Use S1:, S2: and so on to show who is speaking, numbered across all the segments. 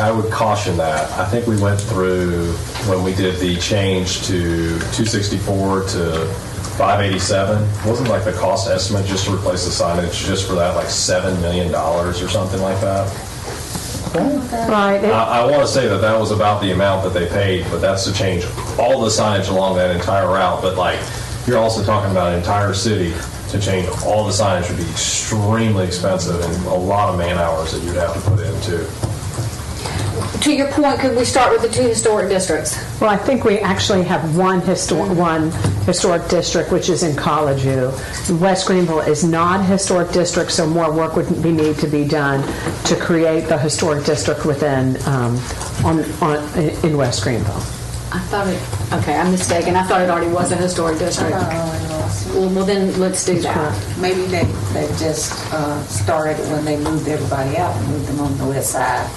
S1: I would caution that. I think we went through, when we did the change to 264 to 587, wasn't like the cost estimate just to replace the signage, just for that, like $7 million or something like that?
S2: Right, it-
S1: I, I want to say that that was about the amount that they paid, but that's to change all the signage along that entire route. But like, you're also talking about an entire city to change all the signage would be extremely expensive and a lot of man hours that you'd have to put into.
S3: To your point, could we start with the two historic districts?
S2: well, I think we actually have one historic, one historic district, which is in College View. West Greenville is not a historic district, so more work would be need to be done to create the historic district within, um, on, on, in West Greenville.
S3: I thought it, okay, I'm mistaken. I thought it already was a historic district.
S4: Uh-huh.
S3: Well, well, then let's do that.
S5: Uh, Maybe they, they just uh, started when they moved everybody out and moved them on the west side,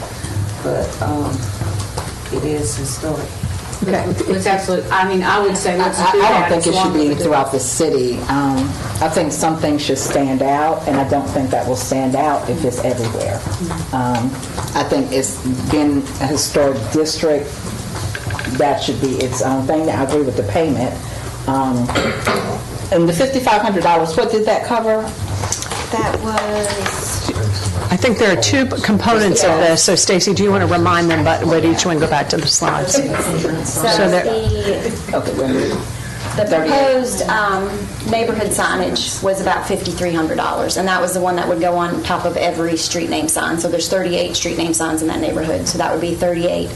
S5: but um, it is historic.
S2: Okay.
S3: It's absolute, I mean, I would say
S4: I,
S3: let's do
S4: I- I
S3: that.
S4: don't think
S3: as
S4: it should
S3: long as
S4: be
S3: it's-
S4: throughout the city. Um, I think some things should stand out, and I don't think that will stand out if it's everywhere. Um, I think it's been a historic district, that should be its own thing. Now, I agree with the payment. Um, And the $5,500, what did that cover?
S6: That was,
S2: I think there are two components of this, so Stacy, do you want to remind them about what each one, go back to the slides?
S6: so
S2: there-
S6: the,
S4: Okay, wait a minute.
S6: the proposed um, neighborhood signage was about $5,300. And that was the one that would go on top of every street name sign. So there's 38 street name signs in that neighborhood. So that would be 38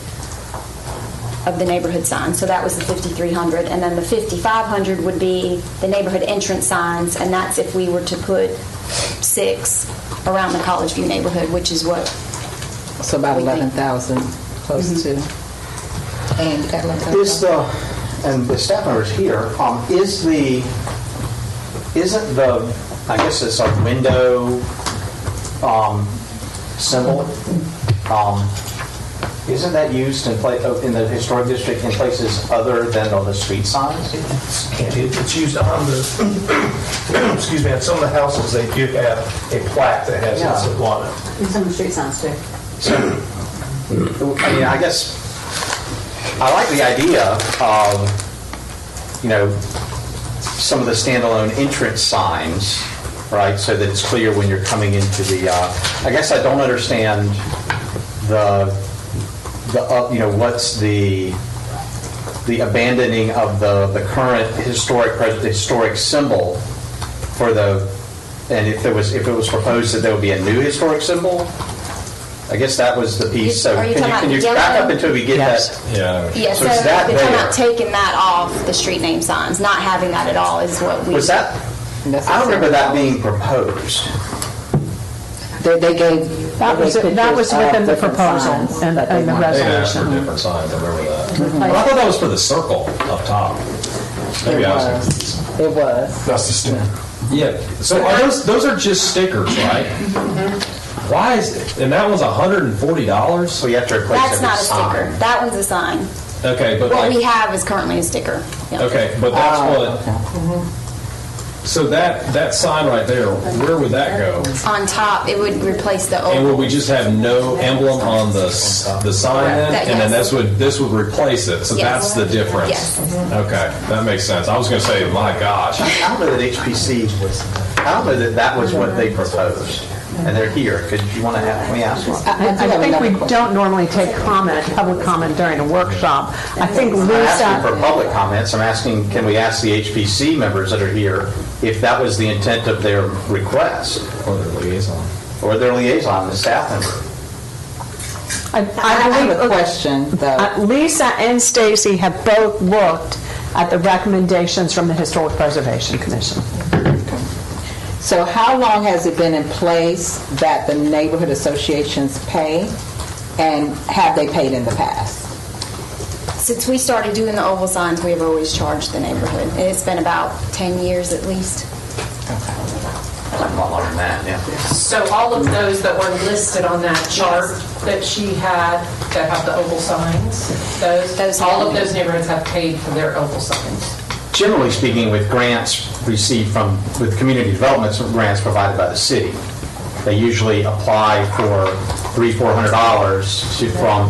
S6: of the neighborhood signs. So that was the 5,300. And then the 5,500 would be the neighborhood entrance signs. And that's if we were to put six around the College View neighborhood, which is what
S4: So about 11,000, close to. And you got 11,000?
S7: Is the, and the staff members here, um, is the, isn't the, I guess it's a window um, symbol, um, isn't that used in pla, oh, in the historic district in places other than on the street signs?
S8: It- It's used on the, excuse me, on some of the houses, they do have a plaque that has
S7: Yeah.
S8: this on it.
S7: I mean, I guess, I like the idea of, you know, some of the standalone entrance signs, right, so that it's clear when you're coming into the, uh, I guess I don't understand the, the, up- you know, what's the, the abandoning of the, the current historic, pres- historic symbol for the, and if there was, if it was proposed that there would be a new historic symbol? I guess that was the piece, so
S6: Are you
S7: can you,
S6: talking
S7: can you
S6: about
S7: back up
S6: yellow?
S7: until we get
S2: Yes.
S7: that?
S1: Yeah.
S6: Yeah,
S7: So
S6: so
S7: is that
S6: if you're
S7: there?
S6: not taking that off the street name signs, not having that at all is what we.
S7: Was that,
S4: That's
S7: I don't remember that
S4: $6,000.
S7: being proposed.
S4: They they gave.
S2: That
S4: they
S2: was,
S4: gave
S2: that was
S4: pictures of
S2: within the
S4: different
S2: proposal
S4: signs
S2: and
S4: that they
S2: and the
S4: wanted.
S1: They asked for
S2: resolution.
S1: different signs, I remember that. But I thought that was for the circle up top. Maybe
S4: It
S1: I was
S4: was. It was.
S8: That's the stamp.
S1: Yeah. So are those those are just stickers, right? Why is and that was hundred and forty dollars?
S7: So you have to replace every
S6: That's not a sticker.
S7: sign.
S6: That one's a sign.
S1: Okay, but
S6: What
S1: like,
S6: we have is currently a sticker. Yeah.
S1: okay, but that's what. So that that sign right there, where would that go?
S6: On top, it would replace the
S1: And would
S6: old.
S1: we just have no emblem on the s- the sign then,
S6: That-
S1: and then
S6: yes.
S1: this would this would replace it? So that's
S6: Yes.
S1: the difference.
S6: Yes.
S1: Okay, that makes sense. I was going to say, my gosh.
S7: I don't know that HPC was, I don't know that that was what they proposed, and they're here, could you want to have, let me ask one.
S6: Uh,
S4: I do
S2: I
S4: have
S2: think
S4: another
S2: we don't normally take comment, public comment during a workshop. I think
S7: I'm not asking for
S2: Lisa,
S7: public comments, I'm asking, can we ask the HPC members that are here if that was the intent of their request,
S1: Or their liaison.
S7: or their liaison, the staff member?
S2: I
S4: I
S2: I
S4: have a
S2: believe,
S4: question, though.
S2: uh, Lisa and Stacy have both looked at the recommendations from the Historic Preservation Commission.
S4: So how long has it been in place that the neighborhood associations pay? And have they paid in the past?
S6: Since we started doing the oval signs, we have always charged the neighborhood. And it's been about 10 years at least.
S7: I'm not like that, yeah.
S9: So all of those that were listed on that chart that she had, that have the oval signs,
S6: Those
S9: those, all of
S6: have-
S9: those neighborhoods have paid for their oval signs.
S7: Generally speaking, with grants received from, with community developments, grants provided by the city, they usually apply for three, four hundred dollars to- from